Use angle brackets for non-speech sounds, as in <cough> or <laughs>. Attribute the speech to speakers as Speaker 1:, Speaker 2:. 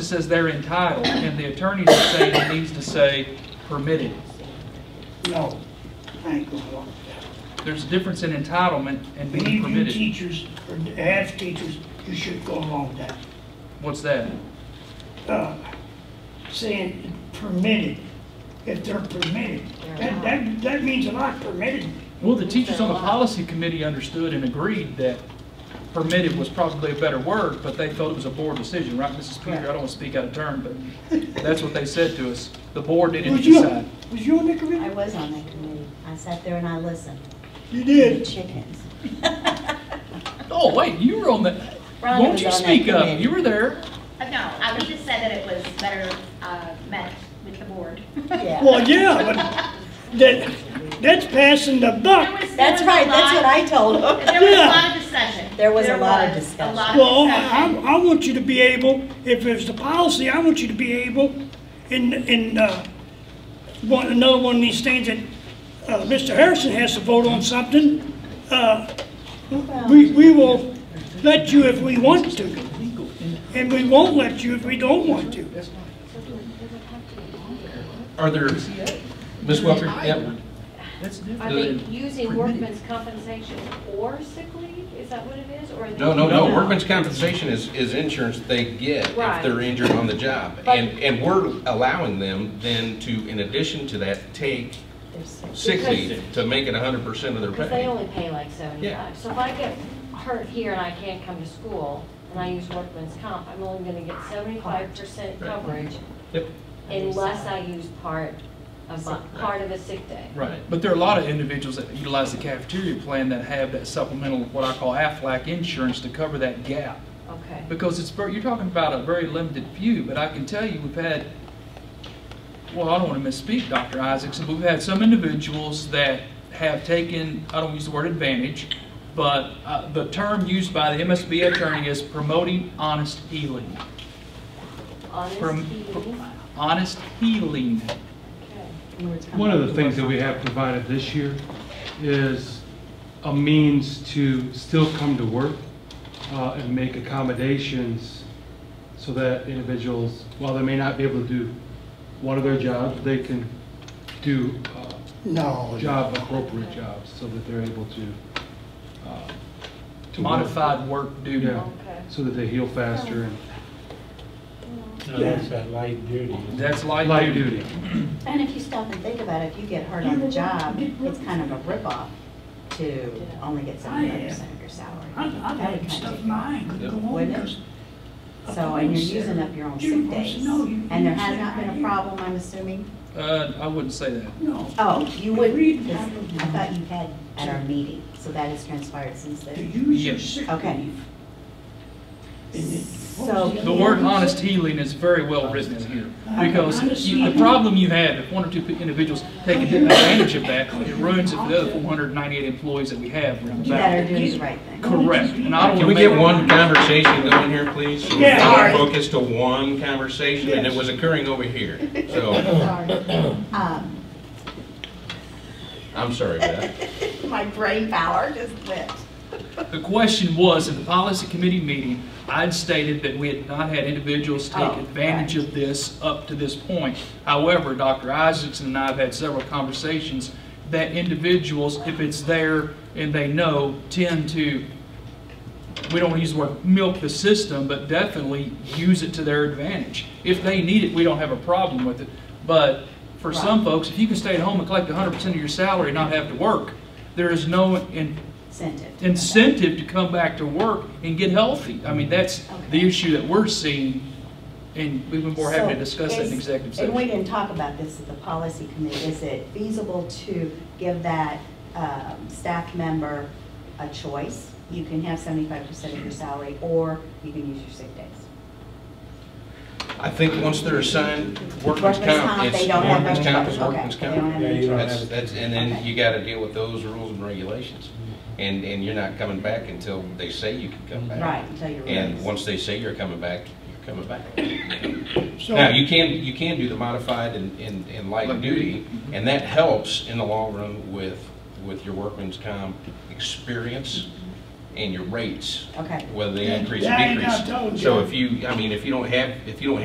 Speaker 1: says they're entitled, and the attorneys are saying it needs to say permitted.
Speaker 2: No, I ain't gonna walk
Speaker 1: There's a difference in entitlement and
Speaker 2: that. Any
Speaker 1: being
Speaker 2: of you
Speaker 1: permitted.
Speaker 2: teachers, or half teachers, you should go along with that.
Speaker 1: What's that?
Speaker 2: uh, saying permitted, if they're permitted. That, that, that means a lot, permitted.
Speaker 1: Well, the teachers on the policy committee understood and agreed that permitted was probably a better word, but they felt it was a board decision, right, Mrs. Peter? I don't want to speak out of turn, but that's what they said to us. The board needed to
Speaker 2: Was you,
Speaker 1: decide.
Speaker 2: was you on the
Speaker 3: I
Speaker 2: committee?
Speaker 3: was on that committee. I sat there and I listened.
Speaker 2: You
Speaker 3: The
Speaker 2: did.
Speaker 3: chickens. <laughs>
Speaker 1: Oh, wait, you were on the,
Speaker 3: Rhonda
Speaker 1: won't
Speaker 3: was
Speaker 1: you
Speaker 3: on that
Speaker 1: speak up?
Speaker 3: committee.
Speaker 1: You were there.
Speaker 4: Uh, No, I would just say that it was better uh, met with the board. <laughs>
Speaker 3: Yeah.
Speaker 2: Well, yeah, but that, that's passing the
Speaker 4: There
Speaker 2: buck.
Speaker 4: was- there
Speaker 3: That's
Speaker 4: was a
Speaker 3: right, that's
Speaker 4: lot-
Speaker 3: what I told
Speaker 2: <laughs>
Speaker 3: him.
Speaker 4: There was a lot of discussion.
Speaker 3: There was a lot of
Speaker 4: was
Speaker 3: discussion.
Speaker 4: A lot
Speaker 2: Well,
Speaker 4: of
Speaker 2: I,
Speaker 4: discussion.
Speaker 2: I want you to be able, if it's the policy, I want you to be able, in, in, uh, one, another one of these things that, uh, Mr. Harrison has to vote on something, uh, we, we will let you if we want to.
Speaker 1: Legal.
Speaker 2: And we won't let you if we don't want to.
Speaker 5: Are there, Ms. Welker, yep,
Speaker 1: That's
Speaker 6: Are
Speaker 1: different.
Speaker 6: they using workman's compensation or sick leave? Is that what it is, or? are they-
Speaker 5: no, no, no, workman's compensation is, is insurance they get if
Speaker 6: Right.
Speaker 5: they're injured on the job.
Speaker 6: But-
Speaker 5: And, and we're allowing them then to, in addition to that, take
Speaker 3: They're so-
Speaker 5: sick
Speaker 6: Because-
Speaker 5: leave to make it hundred percent of their
Speaker 6: Because they
Speaker 5: pay.
Speaker 6: only pay like
Speaker 5: Yeah.
Speaker 6: seventy-five. So if I get hurt here and I can't come to school, and I use workman's comp, I'm only gonna get seventy-five percent
Speaker 5: Right.
Speaker 6: coverage
Speaker 5: Yep,
Speaker 6: unless I use part of my, part of a sick day.
Speaker 1: Right, but there are a lot of individuals that utilize the cafeteria plan that have that supplemental, what I call Aflac insurance to cover that gap.
Speaker 6: Okay.
Speaker 1: Because it's, ver- you're talking about a very limited few, but I can tell you, we've had, well, I don't want to misspeak, Dr. Isaacson, but we've had some individuals that have taken, I don't use the word advantage, but uh, the term used by the MSB attorney is promoting honest healing.
Speaker 6: Honest
Speaker 1: From-
Speaker 6: healing.
Speaker 1: Honest healing.
Speaker 6: Okay.
Speaker 7: One of the things that we have provided this year is a means to still come to work uh, and make accommodations so that individuals, while they may not be able to do one of their jobs, they can do uh,
Speaker 2: No.
Speaker 7: job, appropriate jobs, so that they're able to, uh, to work.
Speaker 1: Modified work duty.
Speaker 7: Yeah, so that they heal faster
Speaker 8: That's that light duty.
Speaker 1: That's
Speaker 7: and
Speaker 1: light
Speaker 7: lighter duty.
Speaker 3: And if you stop and think about it, if you get hurt on the job, it's kind of a ripoff to only get seventy-five percent of your salary.
Speaker 2: I'm, I'm
Speaker 3: That would
Speaker 2: having
Speaker 3: kind of
Speaker 2: stuff
Speaker 3: take
Speaker 2: in
Speaker 3: you.
Speaker 2: my eye, could go home
Speaker 3: Wouldn't it?
Speaker 2: because. of
Speaker 3: So, and
Speaker 2: police
Speaker 3: you're using
Speaker 2: there.
Speaker 3: up your own
Speaker 2: You
Speaker 3: sick
Speaker 2: don't
Speaker 3: days.
Speaker 2: know, you-
Speaker 3: And there
Speaker 2: you
Speaker 3: has
Speaker 2: sit
Speaker 3: not been
Speaker 2: right
Speaker 3: a
Speaker 2: here.
Speaker 3: problem, I'm assuming?
Speaker 1: Uh, I wouldn't say that.
Speaker 2: No.
Speaker 3: Oh, you would,
Speaker 2: Read
Speaker 3: because
Speaker 2: that.
Speaker 3: I thought you had at our meeting, so that has transpired since
Speaker 2: To
Speaker 3: then.
Speaker 2: use your
Speaker 1: Yes.
Speaker 2: sick
Speaker 3: Okay.
Speaker 2: leave. And it- what
Speaker 3: So-
Speaker 2: was
Speaker 1: The
Speaker 2: other
Speaker 1: word
Speaker 2: one you
Speaker 1: honest
Speaker 2: said?
Speaker 1: healing is very well written in here,
Speaker 2: I-
Speaker 1: because you- the problem you have, if one or two individuals take advantage of that, it ruins it for the other 498 employees that we have. around the
Speaker 3: You
Speaker 1: back.
Speaker 3: better do the right thing.
Speaker 1: Correct, and I don't
Speaker 5: Can we get one conversation going here, please? So we're
Speaker 2: Yeah.
Speaker 5: all
Speaker 3: Sorry.
Speaker 5: Focused to one conversation, and it
Speaker 2: Yes.
Speaker 5: was occurring over here, so,
Speaker 2: <laughs>
Speaker 3: Sorry. Um,
Speaker 5: I'm sorry, Beth.
Speaker 3: My brain power just went.
Speaker 1: The question was, in the policy committee meeting, I'd stated that we had not had individuals take
Speaker 3: Oh,
Speaker 1: advantage of this up to this point. However, Dr. Isaacson and I have had several conversations that individuals, if it's there and they know, tend to, we don't use the word milk the system, but definitely use it to their advantage. If they need it, we don't have a problem with it. But for some folks, if you can stay at home and collect 100% of your salary and not have to work, there is no, in
Speaker 3: Sent it.
Speaker 1: incentive to come back to work and get healthy. I mean, that's the
Speaker 3: Okay.
Speaker 1: issue that we're seeing, and we've been more having to
Speaker 3: So
Speaker 1: discuss that
Speaker 3: is-
Speaker 1: in executive
Speaker 3: And we
Speaker 1: session.
Speaker 3: didn't talk about this at the policy committee. Is it feasible to give that um, staff member a choice? You can have seventy-five percent of your salary, or you can use your sick days.
Speaker 5: I think once they're assigned
Speaker 3: Workman's
Speaker 5: workman's
Speaker 3: comp,
Speaker 5: comp,
Speaker 3: they
Speaker 5: it's,
Speaker 3: don't have
Speaker 5: workman's comp
Speaker 3: much-
Speaker 5: is
Speaker 3: okay,
Speaker 5: workman's
Speaker 3: they don't
Speaker 5: comp.
Speaker 3: have
Speaker 8: Yeah,
Speaker 3: any
Speaker 8: you don't
Speaker 3: choice.
Speaker 5: That's, that's, and then
Speaker 3: Okay.
Speaker 5: you gotta deal with those rules and regulations. And, and you're not coming back until they say you can come back.
Speaker 3: Right, until you're.
Speaker 5: And
Speaker 3: released.
Speaker 5: once they say you're coming back, you're coming back.
Speaker 2: So-
Speaker 5: Now, you can, you can do the modified and, and, and light
Speaker 1: Light
Speaker 5: duty,
Speaker 1: duty.
Speaker 5: and that helps in the long run with, with your workman's comp experience and your rates,
Speaker 3: Okay.
Speaker 5: whether they increase or
Speaker 2: Yeah, I ain't
Speaker 5: decrease.
Speaker 2: got told
Speaker 5: So
Speaker 2: you.
Speaker 5: if you, I mean, if you don't have, if you don't